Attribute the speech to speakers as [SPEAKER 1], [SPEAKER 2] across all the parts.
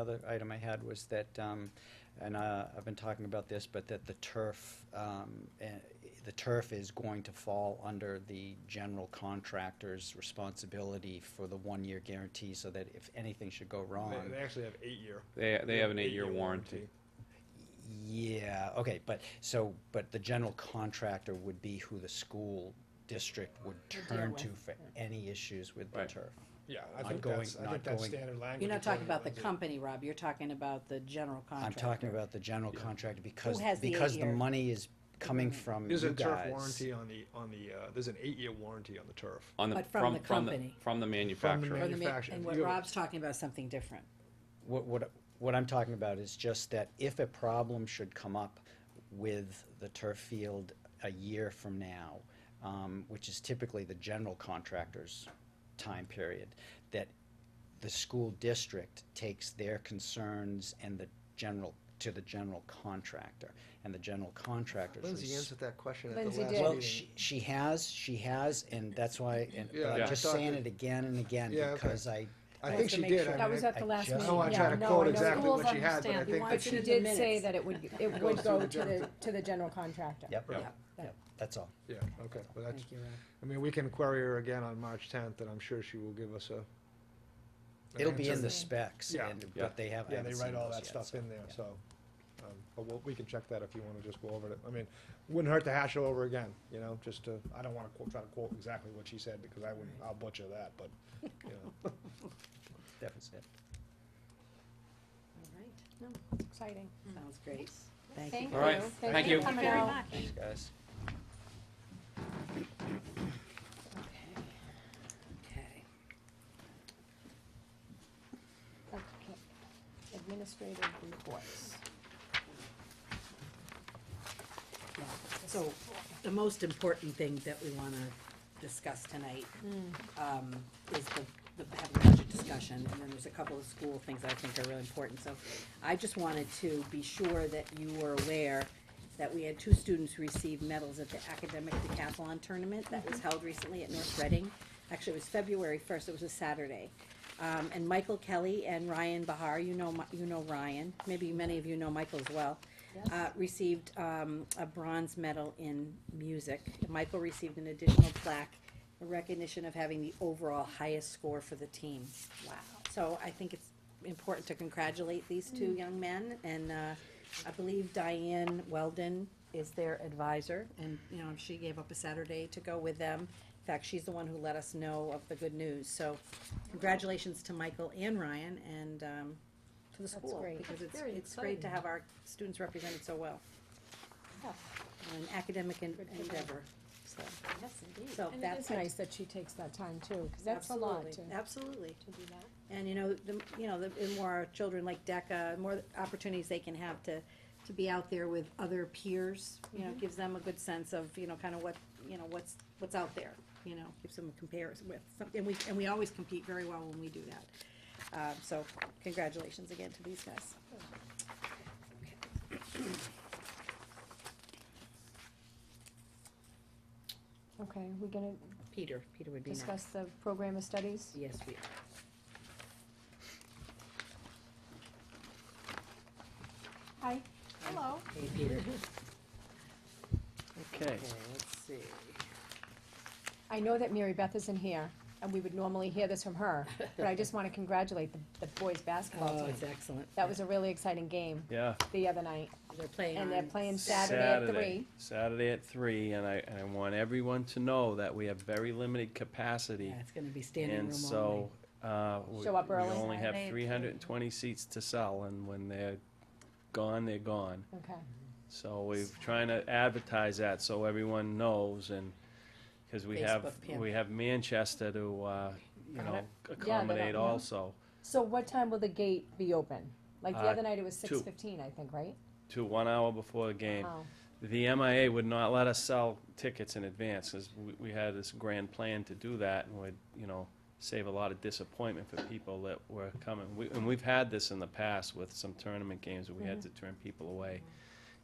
[SPEAKER 1] Other item I had was that, um, and uh, I've been talking about this, but that the turf, um, eh, the turf is going to fall under the general contractor's responsibility for the one-year guarantee, so that if anything should go wrong.
[SPEAKER 2] They, they actually have eight year.
[SPEAKER 3] They, they have an eight-year warranty.
[SPEAKER 1] Yeah, okay, but, so, but the general contractor would be who the school district would
[SPEAKER 4] deal
[SPEAKER 1] turn to
[SPEAKER 4] with,
[SPEAKER 1] for any issues with the
[SPEAKER 3] Right.
[SPEAKER 1] turf.
[SPEAKER 2] Yeah, I
[SPEAKER 1] Not
[SPEAKER 2] think
[SPEAKER 1] going-
[SPEAKER 2] that's, I
[SPEAKER 1] not
[SPEAKER 2] think that's
[SPEAKER 1] going-
[SPEAKER 2] standard language.
[SPEAKER 4] You're not
[SPEAKER 2] in
[SPEAKER 4] talking about the
[SPEAKER 2] Connecticut.
[SPEAKER 4] company, Rob, you're talking about the general
[SPEAKER 1] I'm
[SPEAKER 4] contractor.
[SPEAKER 1] talking about the general contractor because,
[SPEAKER 4] has the
[SPEAKER 1] because the
[SPEAKER 4] eight-year?
[SPEAKER 1] money is coming from you
[SPEAKER 2] There's
[SPEAKER 1] guys.
[SPEAKER 2] Mm-hmm. a turf warranty on the, on the, uh, there's an eight year warranty on the turf.
[SPEAKER 3] On the,
[SPEAKER 4] But from
[SPEAKER 3] from,
[SPEAKER 4] the
[SPEAKER 3] from the,
[SPEAKER 4] company.
[SPEAKER 3] from the
[SPEAKER 4] Or
[SPEAKER 3] manufacturer.
[SPEAKER 4] the ma-
[SPEAKER 2] Manufacturer.
[SPEAKER 4] And what
[SPEAKER 2] You-
[SPEAKER 4] Rob's talking about is something different.
[SPEAKER 1] What, what, what I'm talking about is just that if a problem should come up with the turf field a year from now, um, which is typically the general contractor's time period, that the school district takes their concerns and the general, to the general contractor, and the general contractor's.
[SPEAKER 5] Lindsay
[SPEAKER 1] res-
[SPEAKER 5] answered that question at the last
[SPEAKER 4] Lindsay
[SPEAKER 5] meeting.
[SPEAKER 4] did.
[SPEAKER 1] Well, she, she has, she has, and that's why, and, but
[SPEAKER 2] Yeah,
[SPEAKER 1] I'm
[SPEAKER 2] I
[SPEAKER 1] just
[SPEAKER 2] thought
[SPEAKER 1] saying
[SPEAKER 2] that-
[SPEAKER 1] it again and again,
[SPEAKER 2] Yeah, okay.
[SPEAKER 1] because I,
[SPEAKER 2] I
[SPEAKER 4] Well,
[SPEAKER 2] think
[SPEAKER 4] to
[SPEAKER 2] she
[SPEAKER 4] make
[SPEAKER 2] did.
[SPEAKER 4] sure-
[SPEAKER 2] I
[SPEAKER 6] That
[SPEAKER 2] mean,
[SPEAKER 6] was
[SPEAKER 2] I-
[SPEAKER 6] at the last
[SPEAKER 1] just-
[SPEAKER 6] meeting, yeah.
[SPEAKER 1] Oh,
[SPEAKER 2] I tried to
[SPEAKER 6] No,
[SPEAKER 2] quote
[SPEAKER 6] know
[SPEAKER 2] exactly
[SPEAKER 6] schools
[SPEAKER 2] what she had, but I
[SPEAKER 6] understand.
[SPEAKER 2] think
[SPEAKER 6] But
[SPEAKER 2] that
[SPEAKER 6] she
[SPEAKER 4] she-
[SPEAKER 6] did
[SPEAKER 4] Minutes.
[SPEAKER 6] say that it would, it
[SPEAKER 2] goes
[SPEAKER 6] would
[SPEAKER 2] through
[SPEAKER 6] go
[SPEAKER 2] the
[SPEAKER 6] to the, to the general contractor.
[SPEAKER 1] yep,
[SPEAKER 2] Right.
[SPEAKER 1] yep, that's all.
[SPEAKER 2] Yeah, okay, well, that's,
[SPEAKER 4] Thank you, Rob.
[SPEAKER 2] I mean, we can query her again on March tenth, and I'm sure she will give us a. an
[SPEAKER 1] It'll be in
[SPEAKER 2] answer.
[SPEAKER 1] the specs,
[SPEAKER 2] Yeah.
[SPEAKER 1] and,
[SPEAKER 3] Yeah.
[SPEAKER 1] but they have, I
[SPEAKER 2] Yeah,
[SPEAKER 1] haven't
[SPEAKER 2] they
[SPEAKER 1] seen
[SPEAKER 2] write all
[SPEAKER 1] those
[SPEAKER 2] that
[SPEAKER 1] yet,
[SPEAKER 2] stuff
[SPEAKER 1] so,
[SPEAKER 2] in there,
[SPEAKER 1] yeah.
[SPEAKER 2] so, um, but we'll, we can check that if you wanna just go over it. I mean, wouldn't hurt to hash it over again, you know, just to, I don't wanna quote, try to quote exactly what she said, because I wouldn't, I'll butcher that, but, you know.
[SPEAKER 1] That was it.
[SPEAKER 4] All right,
[SPEAKER 6] No, it's exciting.
[SPEAKER 4] Hmm. sounds great. Thank you.
[SPEAKER 6] Thank you.
[SPEAKER 3] All right. Thank
[SPEAKER 6] Thank
[SPEAKER 3] you.
[SPEAKER 6] you for coming
[SPEAKER 4] Thank you very
[SPEAKER 6] out.
[SPEAKER 1] Thanks, guys.
[SPEAKER 4] Okay.
[SPEAKER 6] Okay. Administrative reports.
[SPEAKER 4] Yeah. So the most important thing that we wanna discuss tonight, um, is the, the, have a budget discussion, and then there's a couple of school things I think are really important, so I just wanted to be sure that you were aware that we had two students receive medals at the academic decathlon tournament that was held recently at North Reading. Actually, it was February first, it was a Saturday. Um, and Michael Kelly and Ryan Bahar, you know, Mi- you know Ryan, maybe many of you know Michael as well uh, received um, a bronze medal in music. Michael received an additional plaque in recognition of having the overall highest score for the team. Wow. So I think it's important to congratulate these
[SPEAKER 6] Mm.
[SPEAKER 4] two young men, and uh, I believe Diane Weldon is their advisor, and, you know, she gave up a Saturday to go with them. In fact, she's the one who let us know of the good news, so congratulations to Michael and Ryan, and um, to the
[SPEAKER 6] That's
[SPEAKER 4] school.
[SPEAKER 6] great.
[SPEAKER 4] Because
[SPEAKER 6] That's
[SPEAKER 4] it's,
[SPEAKER 6] very
[SPEAKER 4] it's great to
[SPEAKER 6] exciting.
[SPEAKER 4] have our students represented so well
[SPEAKER 6] Yeah.
[SPEAKER 4] an academic en-
[SPEAKER 6] Good for them.
[SPEAKER 4] endeavor, so.
[SPEAKER 6] Yes, indeed.
[SPEAKER 4] So
[SPEAKER 6] And it
[SPEAKER 4] that's
[SPEAKER 6] is nice that she takes that time too, because that's a lot to,
[SPEAKER 4] Absolutely, Absolutely,
[SPEAKER 6] to do that.
[SPEAKER 4] and you know, the, you know, the, the more our children like DECA, the more opportunities they can have to, to be out there with other peers, you
[SPEAKER 6] Mm-hmm.
[SPEAKER 4] know, gives them a good sense of, you know, kind of what, you know, what's, what's out there, you know, gives them a comparison with, some- and we, and we always compete very well when we do that. Uh, so congratulations again to these guys.
[SPEAKER 6] Okay, we're gonna
[SPEAKER 4] Peter, Peter would be next.
[SPEAKER 6] discuss the program of studies?
[SPEAKER 4] Yes, we
[SPEAKER 6] Hi. Hello.
[SPEAKER 4] Hey, Peter.
[SPEAKER 1] Okay.
[SPEAKER 4] Okay, let's see.
[SPEAKER 6] I know that Mary Beth isn't here, and we would normally hear this from her, but I just wanna congratulate the, the boys' basketball
[SPEAKER 4] Oh,
[SPEAKER 6] team.
[SPEAKER 4] it's excellent.
[SPEAKER 6] That was a really exciting game
[SPEAKER 3] Yeah.
[SPEAKER 6] the other night,
[SPEAKER 4] They're playing
[SPEAKER 6] and they're
[SPEAKER 4] on
[SPEAKER 6] playing Saturday at
[SPEAKER 3] Saturday,
[SPEAKER 6] three.
[SPEAKER 3] Saturday at three, and I, and I want everyone to know that we have very limited capacity.
[SPEAKER 4] Yeah, it's gonna be standing room
[SPEAKER 3] And
[SPEAKER 4] only.
[SPEAKER 3] so, uh, we we
[SPEAKER 6] Show up early.
[SPEAKER 3] only have
[SPEAKER 6] Saturday at
[SPEAKER 3] three hundred and twenty seats to sell, and when they're gone, they're gone.
[SPEAKER 6] Okay,
[SPEAKER 3] So we're trying to advertise that so everyone knows and, cause we have,
[SPEAKER 4] Facebook, yeah.
[SPEAKER 3] we have Manchester to, uh, you
[SPEAKER 6] Got
[SPEAKER 3] know,
[SPEAKER 6] it.
[SPEAKER 3] accommodate
[SPEAKER 6] know.
[SPEAKER 3] also
[SPEAKER 6] so what time will the gate be open? Like the
[SPEAKER 3] Uh,
[SPEAKER 6] other night, it was
[SPEAKER 3] two.
[SPEAKER 6] six fifteen, I think, right?
[SPEAKER 3] to one hour before the game.
[SPEAKER 6] Oh,
[SPEAKER 3] The MIA would not let us sell tickets in advance, cause we, we had this grand plan to do that and would, you know, save a lot of disappointment for people that were coming. We, and we've had this in the past with some tournament games where we had to turn people away,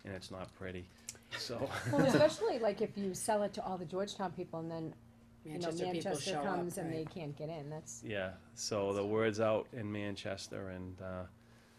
[SPEAKER 3] and it's not pretty, so.
[SPEAKER 6] Well, especially like if you sell it to all the Georgetown people and then, you know,
[SPEAKER 4] Manchester people
[SPEAKER 6] Manchester
[SPEAKER 4] show up,
[SPEAKER 6] comes and they
[SPEAKER 4] right.
[SPEAKER 6] can't get in, that's,
[SPEAKER 3] Yeah, so the word's out in Manchester, and uh,